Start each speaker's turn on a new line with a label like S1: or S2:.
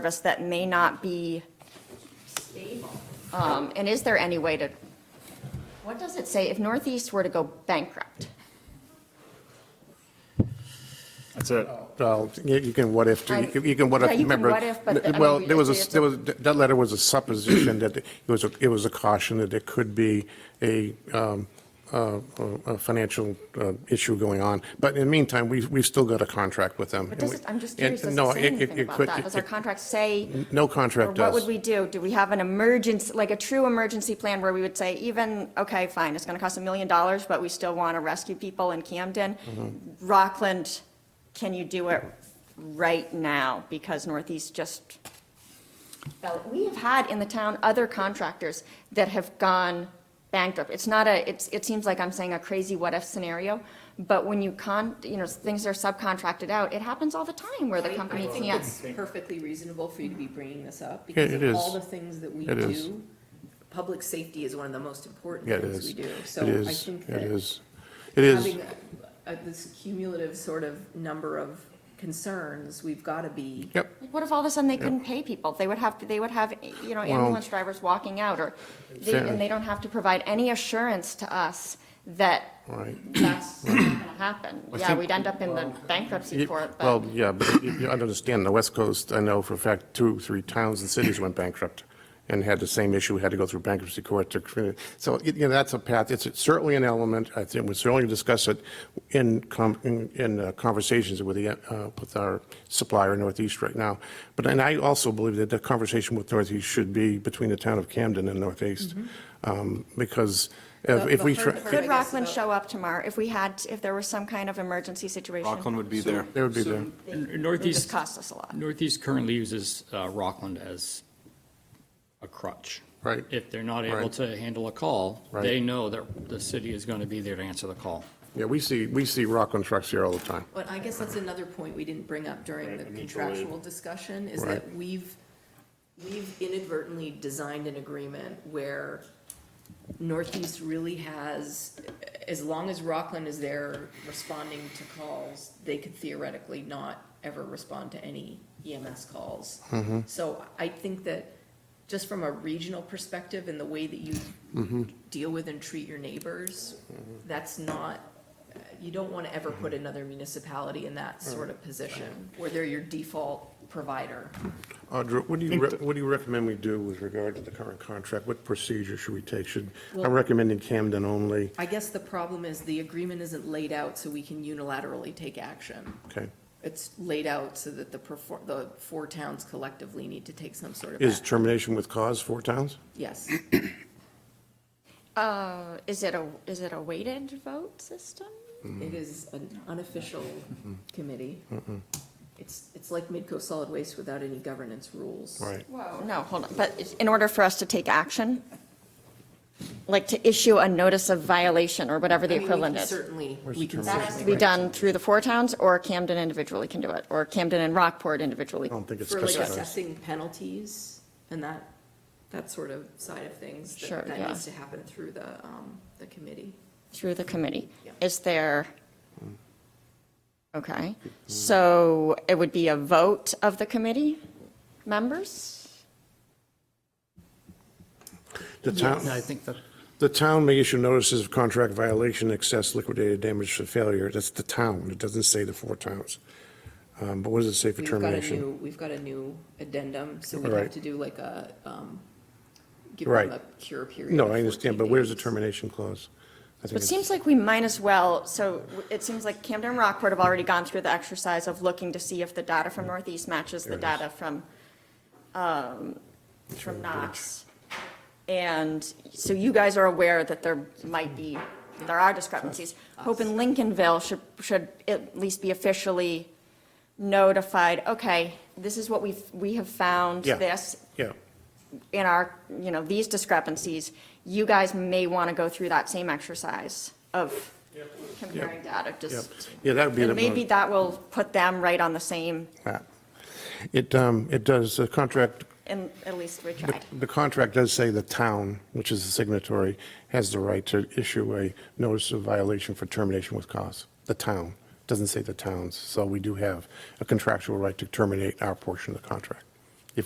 S1: service that may not be stable? Um, And is there any way to, what does it say if Northeast were to go bankrupt?
S2: That's it.
S3: Well, you you can what if,
S1: I-
S3: you can- you can what
S1: Yeah,
S3: if,
S1: you can
S3: remember.
S1: what if, but the- I mean,
S3: Well,
S1: we-
S3: there was,
S1: it's
S3: a
S1: a-
S3: there was, that letter was a supposition that it was, a- it was a caution that there could be a, um, uh, a a financial uh, issue going on. But in the meantime, we've, we've still got a contract with them.
S1: But
S3: and we-
S1: does it, I'm just
S3: and
S1: curious, does
S3: no,
S1: it say
S3: it- it-
S1: anything
S3: it
S1: about
S3: could-
S1: that?
S3: it-
S1: Does our
S3: it-
S1: contract say?
S3: No
S1: Or
S3: contract
S1: what would
S3: does.
S1: we do? Do we have an emergency, like a true emergency plan where we would say even, okay, fine, it's going to cost a million dollars, but we still want to rescue people in Camden?
S3: Mm-hmm.
S1: Rockland, can you do it right now? Because Northeast just, fell- we have had in the town other contractors that have gone bankrupt. It's not a, it's, it seems like I'm saying a crazy what-if scenario, but when you con, you know, things are subcontracted out, it happens all the time where the
S4: I-
S1: company
S4: I think
S1: can't.
S4: it's perfectly reasonable for you to be bringing this up,
S3: Yeah,
S4: because
S3: it
S4: of
S3: is.
S4: all the things that we
S3: It is.
S4: do, public safety is one of the most important
S3: Yeah, it
S4: things
S3: is.
S4: we
S3: It
S4: do. So I
S3: is,
S4: think
S3: it
S4: that
S3: is. It is,
S4: having a- this cumulative sort of number of concerns, we've got to be.
S3: yep.
S1: What if all of a sudden they couldn't pay people? They would have, they would have, you know, ambulance drivers walking out, or, they-
S3: Fair.
S1: and they don't have to provide any assurance to us that
S3: Right.
S1: that's not going to happen.
S3: I
S1: Yeah,
S3: think-
S1: we'd end up in the bankruptcy
S3: Ye-
S1: court, but
S3: Well, yeah, but you you understand, the West Coast, I know for a fact, two, three towns and cities went bankrupt and had the same issue, had to go through bankruptcy court to, so, you know, that's a path, it's certainly an element, I think, we certainly discuss it in, com- in- in uh, conversations with the, uh, with our supplier in Northeast right now. But, and I also believe that the conversation with Northeast should be between the town of Camden and Northeast, um, because if if we.
S4: Mm-hmm. The- the
S3: try-
S4: hard part-
S1: could
S4: I guess
S1: Rockland
S4: about-
S1: show up tomorrow if we had, if there was some kind of emergency situation?
S2: Rockland would be there.
S3: They would be there.
S1: It would just
S5: Northeast,
S1: cost us a lot.
S5: Northeast currently uses uh, Rockland as a crutch.
S3: Right.
S5: If they're not able
S3: Right.
S5: to handle a call,
S3: Right.
S5: they know that the city is going to be there to answer the call.
S3: Yeah, we see, we see Rockland trucks here all the time.
S4: But I guess that's another point we didn't bring up during the contractual discussion, is
S3: Right.
S4: that we've, we've inadvertently designed an agreement where Northeast really has, as long as Rockland is there responding to calls, they could theoretically not ever respond to any EMS calls. So I think that, just from a regional perspective and the way that you deal with and treat your neighbors, that's not you don't want to ever put
S3: Mm-hmm.
S4: another municipality in that sort of position, where they're your default provider.
S3: Audra, what do you, re- what do you recommend we do with regard to the current contract? What procedure should we take? Should, I'm recommending Camden only,
S4: I guess the problem is the agreement isn't laid out so we can unilaterally take action.
S3: okay?
S4: It's laid out so that the, perfor- the four towns collectively need to take some sort of
S3: Is Mm-hmm.
S4: action.
S3: termination with cause four towns?
S4: Yes,
S1: Uh, Is it a, is it a weighted vote system?
S4: it is an unofficial
S3: Mm-hmm.
S4: committee. It's, it's like Midco Solid Waste without any governance rules.
S3: Right.
S1: Whoa, no, hold on, but it's- in order for us to take action, like to issue a notice of violation or whatever the
S4: I mean, we can
S1: equivalent is?
S4: Certainly, we can
S1: That has to
S4: certainly.
S1: be done through the four towns, or Camden individually can do it, or Camden and Rockport individually.
S3: I don't think it's
S4: For like
S3: specified.
S4: assessing penalties and that, that sort of side of things. that-
S1: Sure, yeah.
S4: That needs to happen through the, um, the committee.
S1: Through the committee.
S4: Yeah.
S1: Is there,
S3: Mm.
S1: okay, so it would be a vote of the committee members?
S3: The town,
S5: I think that,
S3: the town may issue notices of contract violation, excess liquidated damage for failure. That's the town. It doesn't say the four towns. Um, But what does it say for
S4: We've got a
S3: termination?
S4: new, we've got a new addendum, so we
S3: Right.
S4: have to do like a, um, give
S3: Right.
S4: them a cure period.
S3: No,
S4: of
S3: I understand, but
S4: 14
S3: where's the
S4: days.
S3: termination clause? I think
S1: It
S3: it's-
S1: seems like we might as well, so it seems like Camden and Rockport have already gone through the exercise of looking to see if the data from Northeast matches the data from, um, from Knox. And so you guys are aware that there might be, there are discrepancies. Hope in Lincolnville should, should at least be officially notified, okay, this is what we've, we have found,
S3: Yeah.
S1: this,
S3: Yeah,
S1: in our, you know, these discrepancies, you guys may want to go through that same exercise of comparing data,
S3: yeah.
S1: just,
S3: Yeah, that would be the.
S1: and maybe
S3: most-
S1: that will put them right on the same,
S3: Yeah. It, um, it does, the contract
S1: and at least we
S3: The-
S1: tried.
S3: The contract does say the town, which is the signatory, has the right to issue a notice of violation for termination with cause. The town, doesn't say the towns, so we do have a contractual right to terminate our portion of the contract.